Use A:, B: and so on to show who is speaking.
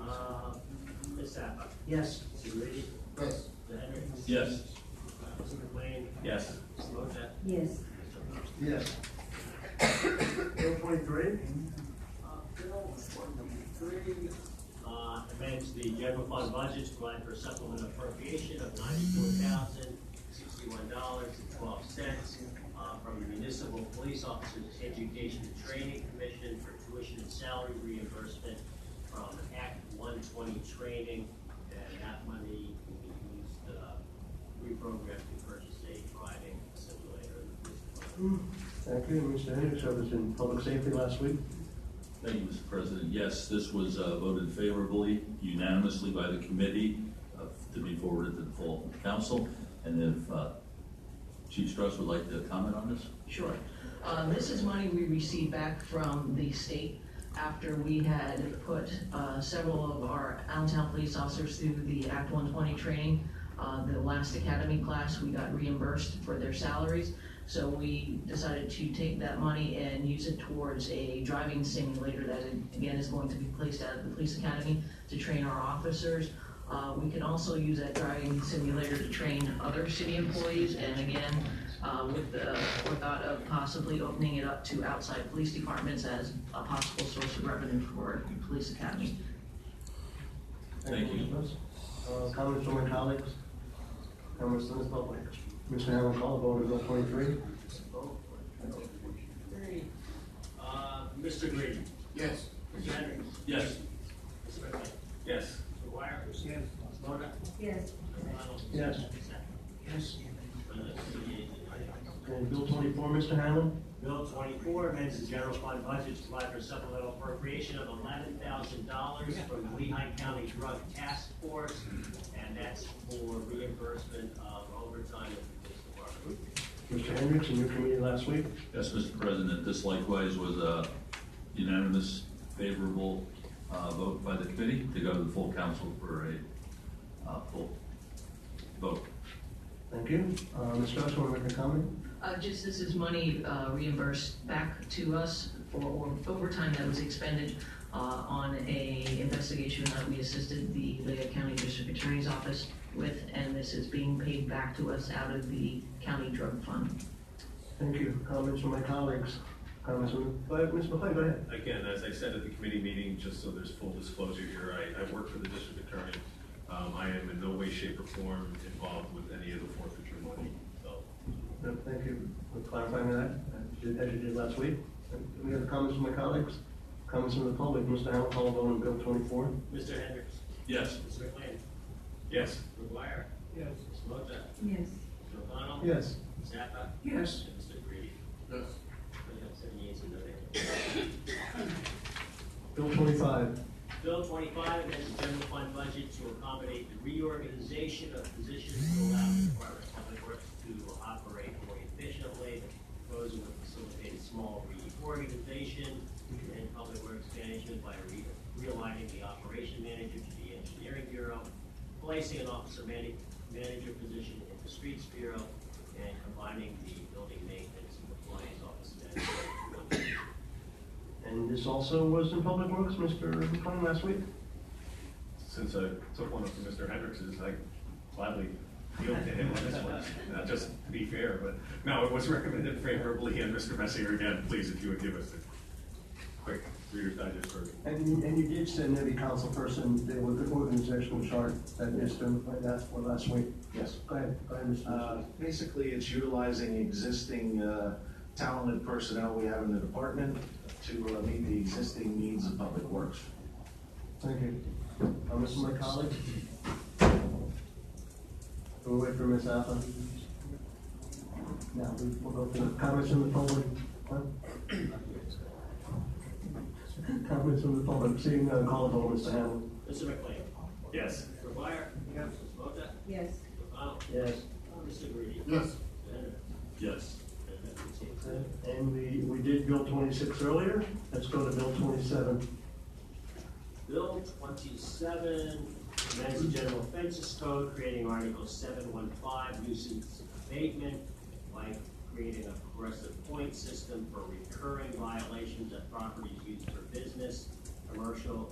A: Uh, Sapa.
B: Yes.
A: Mr. Ready?
B: Yes.
A: Mr. Henry? Uh,
C: Yes.
A: Mr. McLean?
C: Yes.
A: Mr. Wojtek?
D: Yes.
B: Yes.
A: Bill twenty-three? Uh, Bill twenty-three. Uh, amends the general fund budget to provide for supplement appropriation of ninety-four thousand, sixty-one dollars and twelve cents uh, from the Municipal Police Officers Education and Training Commission for tuition and salary reimbursement from Act one twenty training. And that money will be used, uh, reprogrammed to purchase a driving simulator. in the police department.
E: Thank you, Mr. Henry, so was in public safety last week.
C: Thank you, Mr. President. Yes, this was uh, voted favorably unanimously by the committee uh, to be forwarded to the full council. And if uh, Chief Strauss would like to comment on this?
F: Sure. Uh, This is money we received back from the state after we had put uh, several of our Allentown police officers through the Act 120 training. Uh, The last academy class, we got reimbursed for their salaries. So we decided to take that money and use it towards a driving simulator that again is going to be placed out at the police academy to train our officers. Uh, We can also use that driving simulator to train other city employees and again, uh, with the forethought of possibly opening it up to outside police departments as a possible source of revenue for the police academy.
C: Thank you.
E: Mr. Lewis. Uh, Comments from my colleagues? Comments from the public? Mr. Hamlin, call the vote on bill twenty-three.
A: Three. Uh, Mr. Green.
B: Yes.
A: Mr. Henry.
C: Yes.
A: Mr. McLean.
C: Yes.
A: Mr. Wire. Yes. Mr. Moda.
D: Yes.
A: Mr. Reynolds.
E: Yes.
B: Yes.
E: And bill twenty-four, Mr. Hamlin?
A: Bill twenty-four amends the general fund budget to provide for supplemental appropriation of eleven thousand dollars from the Lehigh County Drug Task Force, and that's for reimbursement of overtime at the police department.
E: Mr. Hendricks, in your committee last week?
C: Yes, Mr. President, this likewise was a unanimous favorable uh, vote by the committee to go to the full council for a uh, full vote.
E: Thank you. Uh, Ms. Strauss, want to make a comment?
F: Uh, just this is money uh, reimbursed back to us for o- overtime that was expended uh, on a investigation that we assisted the Lehigh County District Attorney's Office with, and this is being paid back to us out of the county drug fund.
E: Thank you. Comments from my colleagues? Comments from, but, Ms. McCoy, go ahead.
G: Again, as I said at the committee meeting, just so there's full disclosure here, I, I work for the district attorney. Um, I am in no way, shape, or form involved with any of the forfeiture money, so.
E: No, Uh, Thank you for clarifying that, as you as you did last week. And We have comments from my colleagues? Comments from the public? Mr. Hamlin, call the vote on bill twenty-four.
A: Mr. Hendricks.
C: Yes.
A: Mr. McLean.
G: Yes.
A: Mr. Wire.
B: Yes.
A: Mr. Moda.
D: Yes.
A: Mr. O'Connell.
E: Yes.
A: Mr. Zappa.
B: Yes.
A: And Mr. Green.
B: Yes.
A: We have seven yeas and no nays.
E: Bill twenty-five.
A: Bill twenty-five amends the general fund budget to accommodate the reorganization of positions to allow the Department of Public Works to operate more efficiently. Proposal would facilitate a small reorganization in public works management by re- realigning the operation manager to the engineering bureau, placing an officer man- manager position in the streets bureau, and combining the building maintenance and compliance office manager.
E: And this also was in Public Works, Mr. McCollum, last week?
G: Since I took one up from Mr. Hendricks's, I gladly yield to him on this one. Now, just to be fair, but, no, it was recommended favorably, and Mr. Messier, again, please, if you would give us a quick reader's digest version.
E: And, and you did send every council person there with the organizational chart that Mr. asked for last week. Yes. Go ahead, go ahead, Mr.
H: Uh,
E: Messier.
H: Basically, it's utilizing existing uh, talented personnel we have in the department to uh, meet the existing needs of public works.
E: Thank you. Uh, Comments from my colleagues? We'll wait for Ms. Alpha. Now, we- we'll go to comments from the public. What? Comments from the public, seeing none, call the vote, Mr. Hamlin.
A: Mr. McLean.
G: Yes.
A: Mr. Dwyer. Yes. Mr. Moda.
D: Yes.
A: Mr. O'Connell.
E: Yes.
A: Mr. Green.
B: Yes.
A: Mr. Henry.
C: Yes.
E: And we, we did Bill twenty-six earlier, let's go to Bill twenty-seven.
A: Bill twenty-seven, amends the general offenses code, creating article seven one five, nuisance abatement, by creating a progressive point system for recurring violations of properties used for business, commercial,